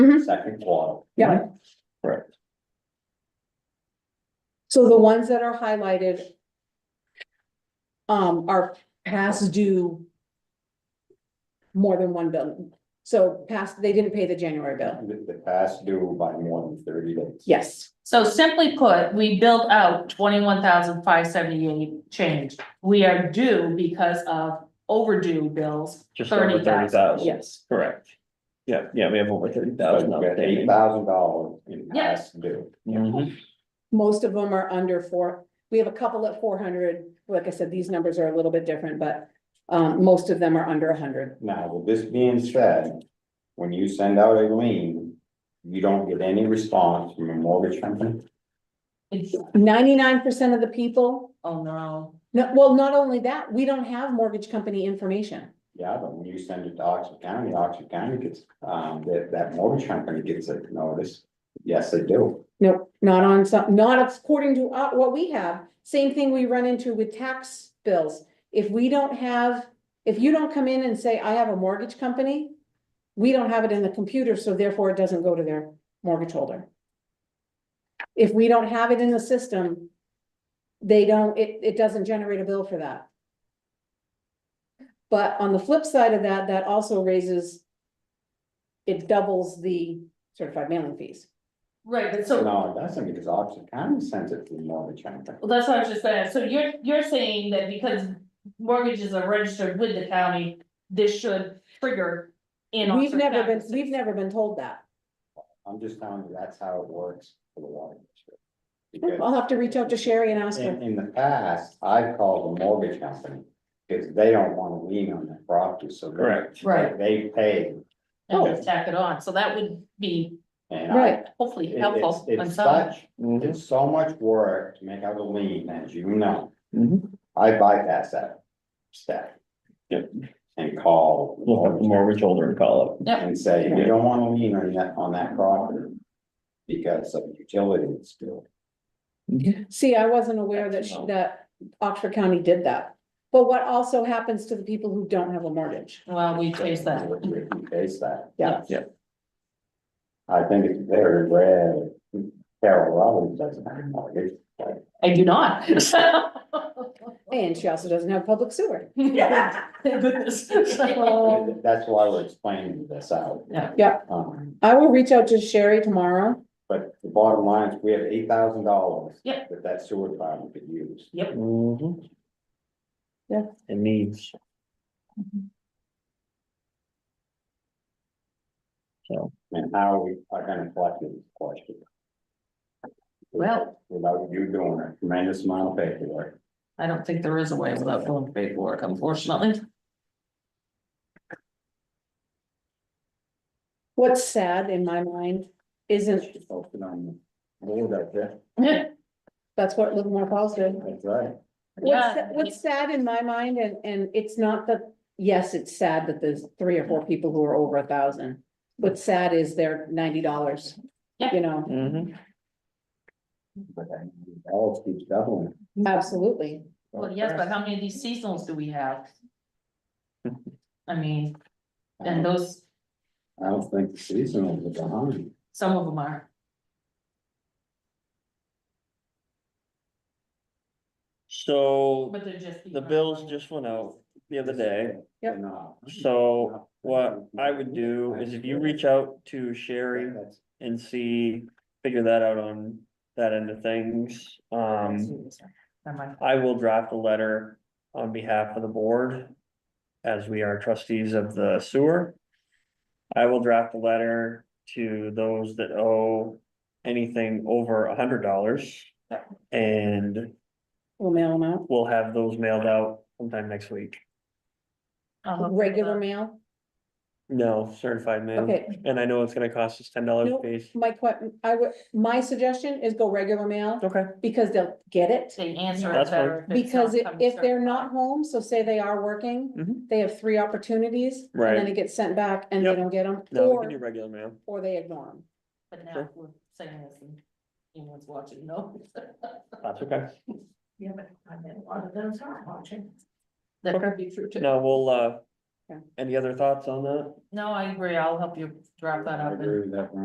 second quarter. Yeah. Correct. So the ones that are highlighted um, are past due more than one bill. So past, they didn't pay the January bill. The, the past due by more than thirty days. Yes. So simply put, we built out twenty-one thousand five seventy-eight change. We are due because of overdue bills, Just over thirty thirty thousand. thousand. Yes. Correct. Yeah, yeah, we have over thirty But thousand we got eight outstanding. thousand dollars in Yeah. past due. Mhm. Most of them are under four. We have a couple at four hundred. Like I said, these numbers are a little bit different, but um, most of them are under hundred. Now, with this being said, when you send out a lien, you don't get any response from a mortgage company. It's- Ninety-nine percent of the people, Oh, no. no, well, not only that, we don't have mortgage company information. Yeah, but when you send it to Oxford County, Oxford County gets, um, that, that mortgage company gets a notice. Yes, they do. No, not on some, not according to uh, what we have. Same thing we run into with tax bills. If we don't have, if you don't come in and say, I have a mortgage company, we don't have it in the computer, so therefore it doesn't go to their mortgage holder. If we don't have it in the system, they don't, it, it doesn't generate a bill for that. But on the flip side of that, that also raises, it doubles the certified mailing fees. Right, but so, No, it doesn't, because Oxford County sends it to the mortgage company. well, that's what I was just saying. So you're, you're saying that because mortgages are registered with the county, this should trigger in We've Oxford never been, County. we've never been told that. I'm just telling you, that's how it works for the water district. Because I'll have to reach out to Sherry and ask in, her. in the past, I've called the mortgage company, because they don't want to lean on their property, so. they- Correct. Right. They pay, And just tack it on. So that would be and I, Right, hopefully it- helpful. it's, on it's some- such, Mhm. it's so much work to make out a lien, as you know. Mhm. I bypass that step. Yep. And call the We'll have the mortgage mortgage holder and call it. and say, we don't want to lean on that, on that property. Because of utilities bill. see, I wasn't aware that, sh- that Oxford County did that. But what also happens to the people who don't have a mortgage? Well, we chase that. We face that. Yeah. Yeah. I think it's very rare, that Carol Robbins doesn't have a mortgage. I do not. And she also doesn't have public sewer. Yeah, thank goodness. So That's why we're explaining this out. Um, Yeah. Yeah. Um, I will reach out to Sherry tomorrow. but the bottom line is, we have eight thousand dollars. Yep. That that sewer department could use. Mhm. Yeah. It needs. So, And how we are gonna collect this question Well, without you doing a tremendous amount of paperwork. I don't think there is a way without doing paperwork, unfortunately. What's sad in my mind isn't, It's open on the board up there. that's what Livermore Falls did. That's right. What's, Yeah. what's sad in my mind and, and it's not that, yes, it's sad that there's three or four people who are over a thousand. What's sad is they're ninety dollars, Yeah. you know, mhm. But that all keeps doubling. absolutely. Well, yes, but how many of these seasonals do we have? I mean, and Um, those, I don't think the seasonal is behind. some of them are. So But they're just. the bills just went out the other day. Yep. No. So what I would do is if you reach out to Sherry That's- and see, figure that out on that end of things. Um, Never mind. I will draft a letter on behalf of the board. As we are trustees of the sewer. I will draft a letter to those that owe anything over a hundred dollars. And We'll mail them out. we'll have those mailed out sometime next week. I'll look for Regular that. mail? No, certified mail, Okay, and I know it's gonna cost us ten dollars Nope. a piece. my que- I would, my suggestion is go regular mail Okay, because they'll get it. They answer it That's fine. better. if it's Because not if, coming if they're not certified. home, so say they are working, Mhm. they have three opportunities. And then Right. it gets sent back and they Yep. don't get them, no, we can do or, regular mail. or they ignore them. But now Sure. we're saying this and anyone's watching, no. That's okay. Yeah, but I bet a lot of those aren't watching. That Okay. could be true too. No, we'll, uh, Okay. Any other thoughts on that? No, I agree, I'll help you draft that I up and agree with that, Ron.